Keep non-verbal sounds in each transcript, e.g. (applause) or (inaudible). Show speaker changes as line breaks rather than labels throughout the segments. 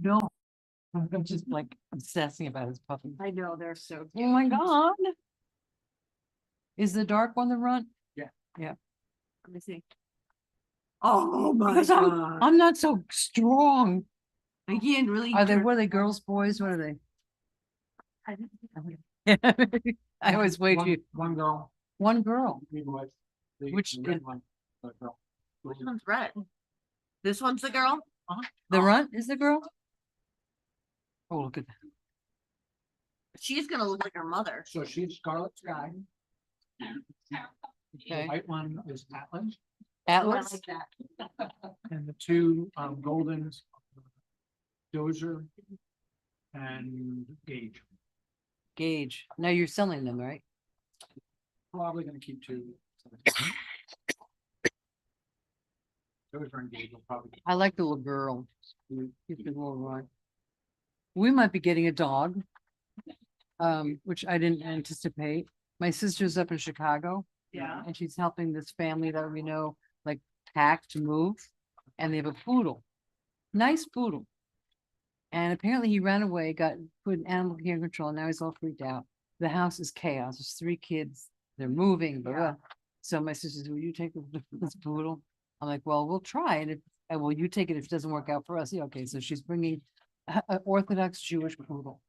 No, I'm just like obsessing about his puppy.
I know, they're so.
Oh my god. Is the dark one the runt?
Let me see. Oh my
Because I'm-
god.
I'm not so strong.
I can't really.
Are they,
turn-
what are they, girls, boys? What are
I don't think I would-
they? (laughs) I always wait
One-
you,
One girl,
one girl.
three boys. the-
Which
the red
in-
one, the girl.
Which one's red? This one's the girl?
The
Oh.
runt is the girl? Oh, look at that.
She's gonna look like her mother.
So she's Scarlet Sky. The
Okay.
white one is Atlas,
Oh, I
Atlas?
like that.
and the two um goldens. Dozer. And Gage,
Gage. Now you're selling them, right?
probably gonna keep two. Dozer and Gage will probably.
I like the little girl.
Mm.
She's the little runt. We might be getting a dog. Um, which I didn't anticipate. My sister's up in Chicago.
Yeah.
And she's helping this family that we know, like pack to move, and they have a poodle, nice poodle. And apparently he ran away, got put in animal care control, and now he's all freaked out. The house is chaos. There's three kids. They're moving, blah, blah. So my sister says, will you take the- (laughs) this poodle? I'm like, well, we'll try it. if- And will you take it if it doesn't work out for us? Yeah, okay. So she's bringing a- a Orthodox Jewish poodle.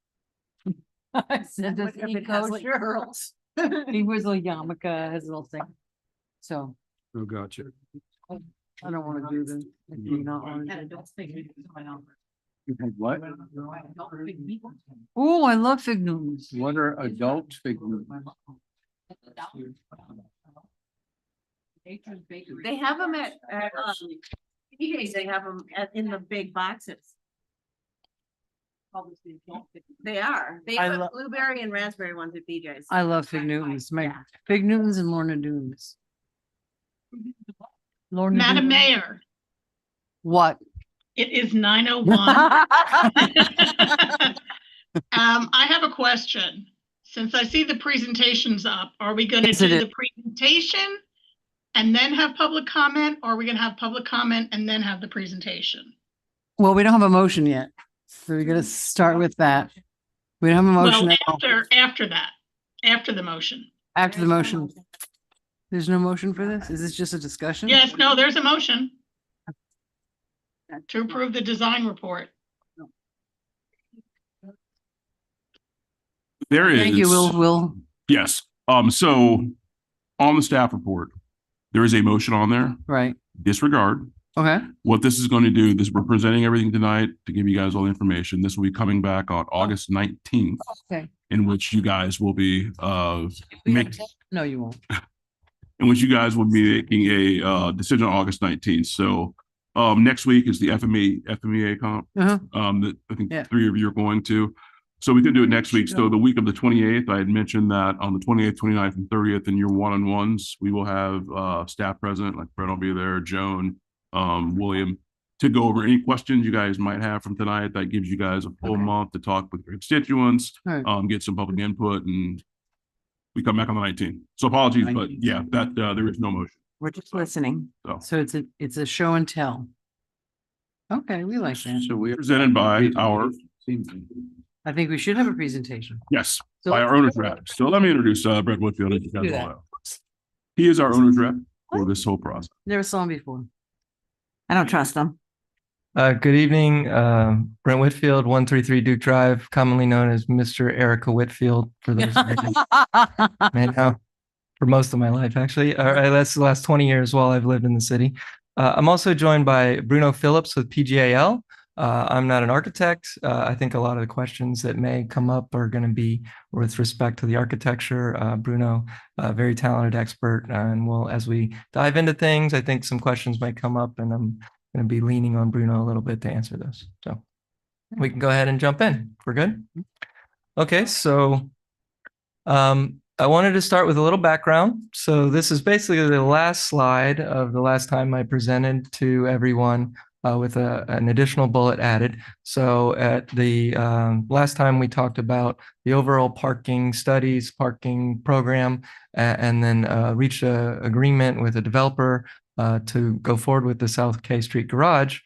(laughs) I said, does
What if
he
it has, like,
kosher?"
girls?
(laughs) He wears a little yarmulke, his little thing. So
Oh, gotcha.
I don't wanna do this. I do not wanna
And I
do
don't think it is my number.
What?
Oh, I love fig Newtons.
What are adult figures?
They have them at, at, um, PJ's, they have them at, in the big boxes. They are. They
I
have
lo-
blueberry and raspberry ones at BJ's.
I love fig Newtons, my
Yeah.
fig Newtons and Lorna Doones. Lorna
Madam
Doones.
Mayor,
What?
it is nine
(laughs)
oh one. Um, I have a question. Since I see the presentations up, are we gonna
Yes, it
do
is.
the presentation? And then have public comment, or are we gonna have public comment and then have the presentation?
Well, we don't have a motion yet, so we're gonna start with that. We don't have a motion
Mm. Well,
at all.
after, after that, after the motion.
after the motion. There's no motion for this? Is this just a discussion?
Yes, no, there's a motion. To approve the design report.
There is.
Thank you, Will, Will.
Yes. Um, so on the staff report, there is a motion on there.
Right,
Disregard.
okay,
What this is going to do, this, we're presenting everything tonight to give you guys all the information. This will be coming back on August nineteenth,
okay.
in which you guys will be, uh, Make-
No, you won't.
in which you guys will be making a, uh, decision on August nineteenth. So, um, next week is the FME, FMEA comp.
Uh-huh.
Um, that I think
Yeah.
three of you are going to. So we could do it next week. So
Sure.
the week of the twenty-eighth, I had mentioned that on the twenty-eighth, 29th, and thirtieth, in your one-on-ones, we will have, uh, staff present, like Brett will be there, Joan, um, William, to go over any questions you guys might have from tonight. That gives you guys a full
Okay.
month to talk with your constituents,
Alright.
um, get some public input and we come back on the nineteenth. So apologies, but yeah, that, uh, there is no motion.
We're just listening.
So-
So it's a, it's a show and tell. Okay, we like that.
So we.
Presented by our,
Seems-
I think we should have a presentation.
yes,
So
by
let's-
our owner's rep. So let me introduce, uh, Brett Whitfield. as you guys
Do
all
that.
know. He is our owner's rep for this whole process.
Never saw him before.
I don't trust them.
Uh, good evening, um, Brent Whitfield, one three three Duke Drive, commonly known as Mister Erica Whitfield for those that I may know for most of my life, actually. All right, that's the last twenty years while I've lived in the city. Uh, I'm also joined by Bruno Phillips with PGAL. Uh, I'm not an architect. Uh, I think a lot of the questions that may come up are going to be with respect to the architecture. Uh, Bruno, a very talented expert, uh, and we'll as we dive into things, I think some questions might come up, and I'm going to be leaning on Bruno a little bit to answer those. So we can go ahead and jump in. We're good. Okay, so um, I wanted to start with a little background. So this is basically the last slide of the last time I presented to everyone uh, with a, an additional bullet added. So at the um, last time we talked about the overall parking studies, parking program, a- and then uh, reached a agreement with a developer uh, to go forward with the South K Street Garage.